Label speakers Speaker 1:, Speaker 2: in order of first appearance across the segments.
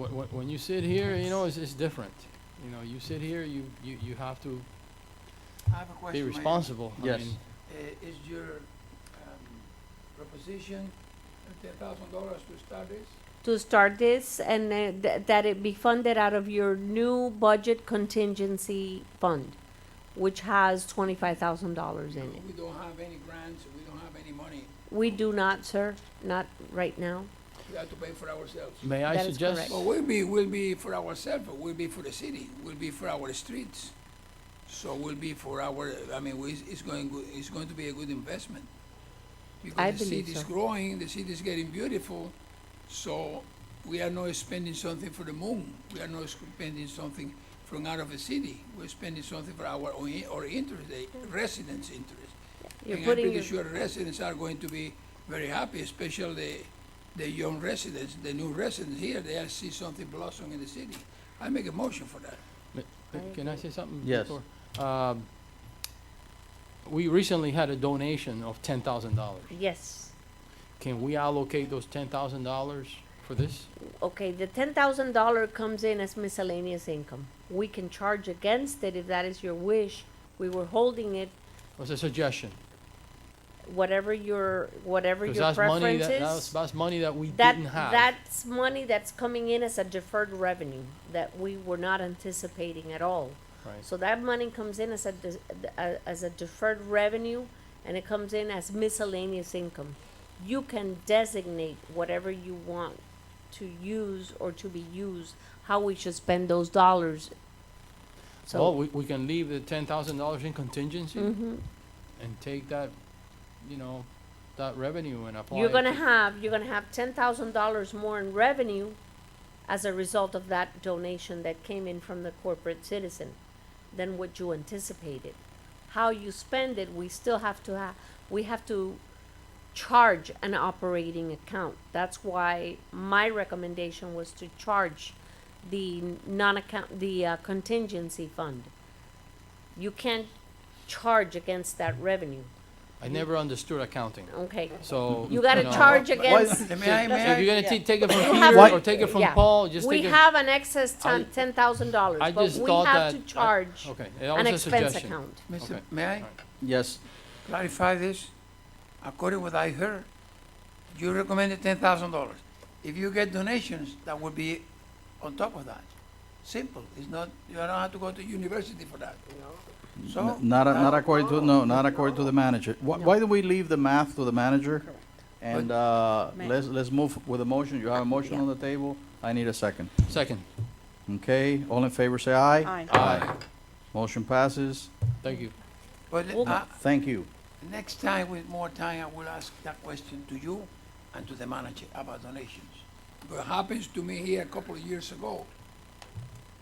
Speaker 1: Wh- wh- When you sit here, you know, it's, it's different. You know, you sit here, you, you, you have to
Speaker 2: I have a
Speaker 1: be
Speaker 2: question. Mayor.
Speaker 1: responsible. I
Speaker 3: Yes.
Speaker 1: mean,
Speaker 2: Uh, Is your um, proposition uh, ten thousand dollars to start this?
Speaker 4: to start this and uh, th- that it be funded out of your new budget contingency fund, which has twenty-five thousand dollars in it.
Speaker 2: We don't have any grants, we don't have any money,
Speaker 4: We do not, sir, not right now.
Speaker 2: we have to pay for ourselves.
Speaker 1: May I
Speaker 4: That is
Speaker 1: suggest,
Speaker 4: correct.
Speaker 2: But we'll be, we'll be for ourselves, but we'll be for the city, we'll be for our streets. So we'll be for our, I mean, we, it's going, go- it's going to be a good investment.
Speaker 4: I
Speaker 2: Because the
Speaker 4: believe
Speaker 2: city's
Speaker 4: so.
Speaker 2: growing, the city's getting beautiful, so we are not spending something for the moon. We are not spending something from out of the city. We're spending something for our own, or interest, the residents' interest.
Speaker 4: You're
Speaker 2: And I'm
Speaker 4: putting
Speaker 2: pretty
Speaker 4: your,
Speaker 2: sure residents are going to be very happy, especially the, the young residents, the new residents here, they'll see something blossom in the city. I make a motion for that.
Speaker 1: uh, can I say something?
Speaker 3: Yes.
Speaker 1: before? Um, We recently had a donation of ten thousand dollars.
Speaker 4: yes,
Speaker 1: Can we allocate those ten thousand dollars for this?
Speaker 4: okay, the ten thousand dollar comes in as miscellaneous income. We can charge against it if that is your wish. We were holding it,
Speaker 1: Was a suggestion.
Speaker 4: whatever your, whatever
Speaker 1: 'cause
Speaker 4: your
Speaker 1: that's money
Speaker 4: preference
Speaker 1: that- That's,
Speaker 4: is.
Speaker 1: that's money that we
Speaker 4: That,
Speaker 1: didn't have.
Speaker 4: that's money that's coming in as a deferred revenue that we were not anticipating at all.
Speaker 1: Right.
Speaker 4: So that money comes in as a, des- a- as a deferred revenue, and it comes in as miscellaneous income. You can designate whatever you want to use or to be used, how we should spend those dollars.
Speaker 1: Well,
Speaker 4: So,
Speaker 1: we, we can leave the ten thousand dollars in contingency
Speaker 4: Mhm.
Speaker 1: and take that, you know, that revenue and apply it.
Speaker 4: you're gonna
Speaker 1: to-
Speaker 4: have, you're gonna have ten thousand dollars more in revenue as a result of that donation that came in from the corporate citizen than what you anticipated. How you spend it, we still have to ha- we have to charge an operating account. That's why my recommendation was to charge the non-account, the uh, contingency fund. You can't charge against that revenue,
Speaker 1: I never understood accounting,
Speaker 4: okay?
Speaker 1: so.
Speaker 4: You gotta
Speaker 1: know,
Speaker 4: charge
Speaker 3: why-
Speaker 4: against.
Speaker 2: May I,
Speaker 1: So if
Speaker 2: may
Speaker 1: you're
Speaker 2: I?
Speaker 1: gonna t- take it from
Speaker 4: have
Speaker 1: Peter
Speaker 3: to-
Speaker 1: or take it from
Speaker 4: Yeah.
Speaker 1: Paul, just
Speaker 4: We
Speaker 1: take it.
Speaker 4: have an excess
Speaker 1: I-
Speaker 4: ten thousand dollars,
Speaker 1: I
Speaker 4: but
Speaker 1: just
Speaker 4: we
Speaker 1: thought
Speaker 4: have to
Speaker 1: that- I-
Speaker 4: charge
Speaker 1: Okay, that was
Speaker 4: an
Speaker 1: a
Speaker 4: expense
Speaker 1: suggestion.
Speaker 4: account.
Speaker 2: Mr.
Speaker 1: Okay.
Speaker 2: May I
Speaker 1: Alright.
Speaker 3: Yes,
Speaker 2: clarify this? According what I heard, you recommended ten thousand dollars. If you get donations, that would be on top of that. Simple, it's not, you don't have to go to university for that. So. uh,
Speaker 3: N- not, a- not according to, no, not according to the manager. Why, why do we leave the math to the manager? And, uh,
Speaker 4: Ma-
Speaker 3: let's, let's move with a motion. You have a motion
Speaker 4: Yeah.
Speaker 3: on the table. I need a second.
Speaker 1: Second,
Speaker 3: Okay, all in favor, say aye.
Speaker 5: Aye.
Speaker 1: aye,
Speaker 3: Motion passes.
Speaker 1: thank you.
Speaker 2: But
Speaker 4: Well-
Speaker 2: uh,
Speaker 3: Thank you.
Speaker 2: next time, with more time, I will ask that question to you and to the manager about donations. What happens to me here a couple of years ago.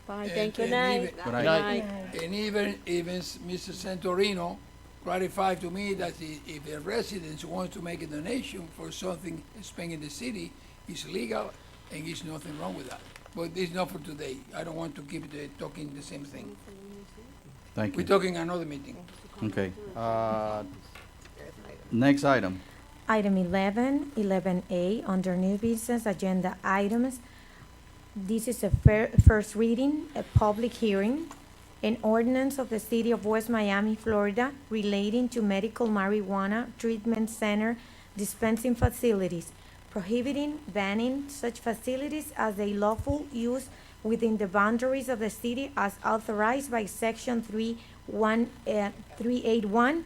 Speaker 5: Bye,
Speaker 1: Eh,
Speaker 2: and-
Speaker 5: thank you.
Speaker 2: and
Speaker 4: night.
Speaker 2: even-
Speaker 3: Good night.
Speaker 1: Night.
Speaker 2: And even, even s- Mr. Santorino clarified to me that i- if the residents want to make a donation for something spent in the city, it's legal and it's nothing wrong with that. But it's not for today. I don't want to keep the, talking the same thing.
Speaker 3: Thank
Speaker 2: We're
Speaker 3: you.
Speaker 2: talking another meeting.
Speaker 3: Okay. Uh, Next item.
Speaker 6: Item 11, 11A, under new business agenda items. This is a fir- first reading, a public hearing, an ordinance of the City of West Miami, Florida relating to medical marijuana treatment center dispensing facilities, prohibiting, banning such facilities as a lawful use within the boundaries of the city as authorized by Section 31, uh, 381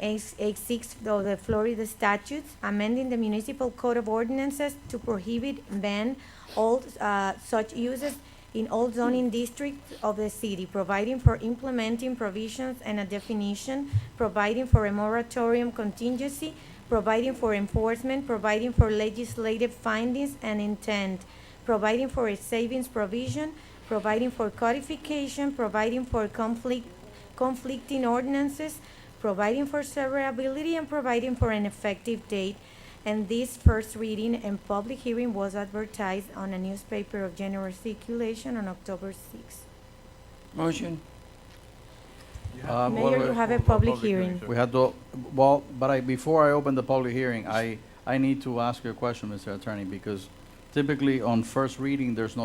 Speaker 6: 9886 of the Florida statutes, amending the municipal code of ordinances to prohibit, ban all uh, such uses in all zoning districts of the city, providing for implementing provisions and a definition, providing for a moratorium contingency, providing for enforcement, providing for legislative findings and intent, providing for a savings provision, providing for codification, providing for conflict, conflicting ordinances, providing for severability and providing for an effective date. And this first reading and public hearing was advertised on a newspaper of general circulation on October 6th.
Speaker 2: Motion?
Speaker 3: Uh, what
Speaker 6: Mayor,
Speaker 3: we-
Speaker 6: you have a Ah, public hearing.
Speaker 3: We had to, well, but I, before I open the public hearing, I, I need to ask you a question, Mr. Attorney, because typically on first reading, there's no